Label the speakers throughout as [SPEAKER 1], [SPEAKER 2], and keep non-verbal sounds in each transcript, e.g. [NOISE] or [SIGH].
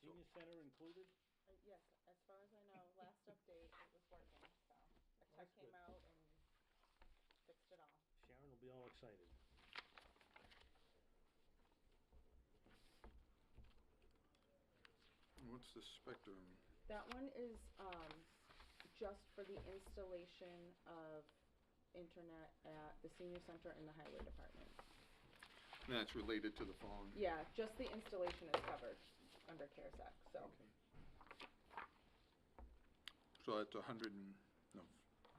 [SPEAKER 1] senior center included?
[SPEAKER 2] Uh, Yes, as far as I know, last update, it was working, so a
[SPEAKER 1] That's
[SPEAKER 2] tech came
[SPEAKER 1] good.
[SPEAKER 2] out and fixed it all.
[SPEAKER 1] Sharon will be all excited.
[SPEAKER 3] What's the spectrum?
[SPEAKER 2] That one is, um, just for the installation of internet at the senior center and the highway department.
[SPEAKER 3] That's related to the phone?
[SPEAKER 2] Yeah, just the installation is covered under CARES Act, so
[SPEAKER 3] Okay. So that's a hundred and, no,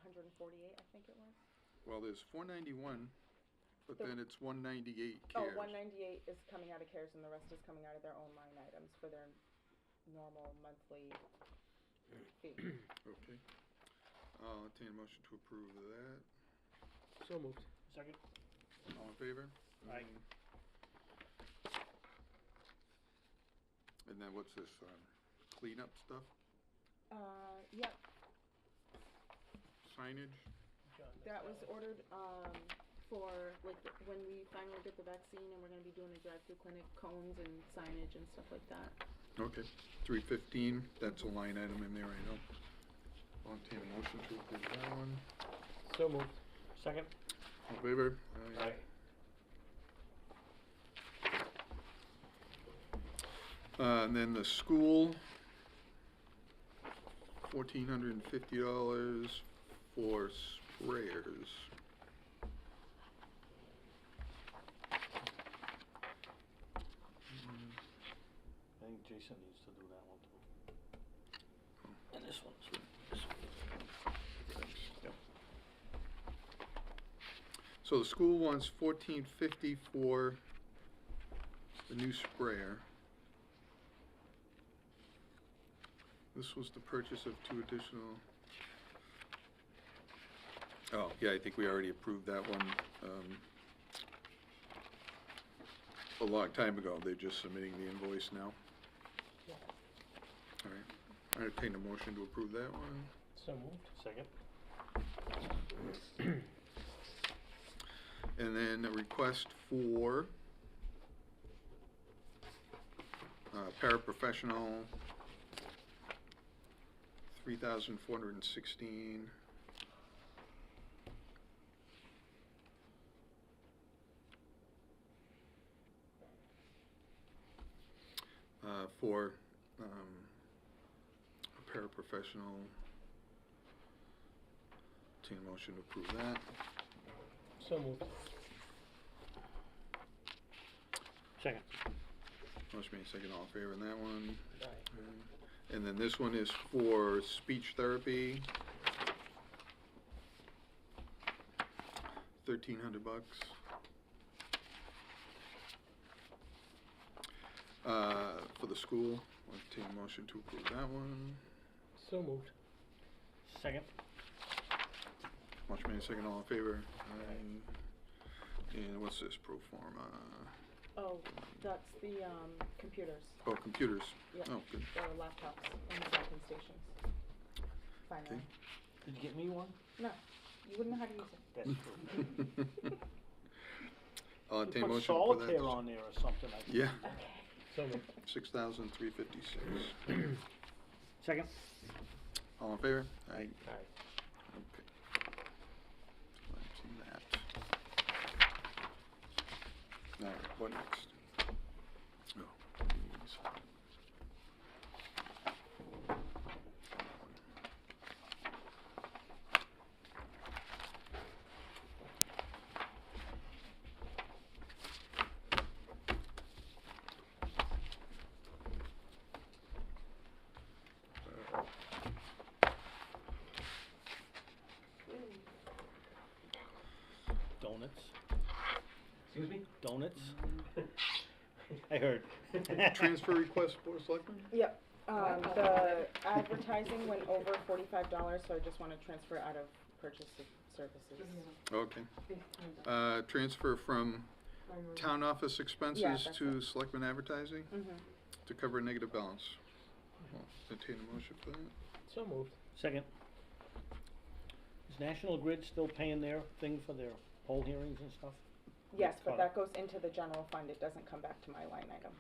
[SPEAKER 2] hundred and forty-eight, I think it was.
[SPEAKER 3] well, there's four ninety-one, but
[SPEAKER 2] The-
[SPEAKER 3] then it's one ninety-eight
[SPEAKER 2] Oh,
[SPEAKER 3] CARES.
[SPEAKER 2] one ninety-eight is coming out of CARES and the rest is coming out of their own line items for their normal monthly
[SPEAKER 1] [CLEARS THROAT]
[SPEAKER 2] fee.
[SPEAKER 3] Okay. I'll entertain a motion to approve of that.
[SPEAKER 4] So moved.
[SPEAKER 1] Second?
[SPEAKER 3] All in favor? Mm-hmm.
[SPEAKER 1] Aye.
[SPEAKER 3] And then what's this, um, cleanup stuff,
[SPEAKER 2] Uh, yep,
[SPEAKER 3] signage?
[SPEAKER 2] That was ordered, um, for, like, when we finally get the vaccine and we're gonna be doing a drive-through clinic, cones and signage and stuff like that.
[SPEAKER 3] Okay, three fifteen, that's a line item in there, I know. I'll entertain a motion to approve that one.
[SPEAKER 4] So moved.
[SPEAKER 1] Second?
[SPEAKER 3] All in favor? Aye. Uh, and then the school, fourteen hundred and fifty dollars for sprayers.
[SPEAKER 1] I think Jason needs to do that one too. And this one, too. This one. Yep.
[SPEAKER 3] So the school wants fourteen fifty for the new sprayer. This was the purchase of two additional. Oh, yeah, I think we already approved that one, um, a long time ago. They're just submitting the invoice now. All right, I entertain a motion to approve that one.
[SPEAKER 4] So moved.
[SPEAKER 1] Second?
[SPEAKER 3] And then a request for uh, paraprofessional, three thousand four hundred and sixteen. Uh, for, um, a paraprofessional. Entertain a motion to approve that.
[SPEAKER 4] So moved.
[SPEAKER 1] Second.
[SPEAKER 3] Motion made second, all in favor on that one.
[SPEAKER 4] Aye.
[SPEAKER 3] And then this one is for speech therapy. Thirteen hundred bucks. Uh, for the school, I'll entertain a motion to approve that one.
[SPEAKER 4] So moved.
[SPEAKER 1] Second?
[SPEAKER 3] Motion made second, all in favor. Aye. And what's this, pro forma?
[SPEAKER 2] Oh, that's the, um, computers.
[SPEAKER 3] Oh, computers.
[SPEAKER 2] Yeah,
[SPEAKER 3] Oh, good. [LAUGHS]
[SPEAKER 2] Or laptops and docking stations. Finally.
[SPEAKER 3] Okay.
[SPEAKER 1] Did you get me one?
[SPEAKER 2] No, you wouldn't know how to use it.
[SPEAKER 3] [LAUGHS]
[SPEAKER 1] That's true.
[SPEAKER 3] I'll
[SPEAKER 1] You
[SPEAKER 3] entertain a
[SPEAKER 1] Put
[SPEAKER 3] motion for that.
[SPEAKER 1] solitaire on there or something. I think.
[SPEAKER 3] Yeah.
[SPEAKER 2] Okay.
[SPEAKER 4] So moved.
[SPEAKER 3] Six thousand three fifty-six.
[SPEAKER 1] Second?
[SPEAKER 3] All in favor? Aye.
[SPEAKER 4] Aye.
[SPEAKER 3] Okay. Let's see that. Now, what next? Oh. please.
[SPEAKER 1] Donuts?
[SPEAKER 4] Excuse me?
[SPEAKER 1] Donuts? [LAUGHS] I heard. [LAUGHS]
[SPEAKER 3] Transfer request, Board of Selectmen?
[SPEAKER 2] Yep, um, the advertising went over forty-five dollars, so I just wanna transfer out of purchase of services.
[SPEAKER 3] Okay. Uh, transfer from town office
[SPEAKER 2] Yeah,
[SPEAKER 3] expenses
[SPEAKER 2] that's
[SPEAKER 3] to
[SPEAKER 2] it.
[SPEAKER 3] Selectmen advertising
[SPEAKER 2] Mm-hmm.
[SPEAKER 3] to cover negative balance. Well, Entertain a motion for that?
[SPEAKER 4] So moved.
[SPEAKER 1] Second. Is National Grid still paying their thing for their poll hearings and stuff?
[SPEAKER 2] Yes, but
[SPEAKER 1] Fine.
[SPEAKER 2] that goes into the general fund, it doesn't come back to my line item.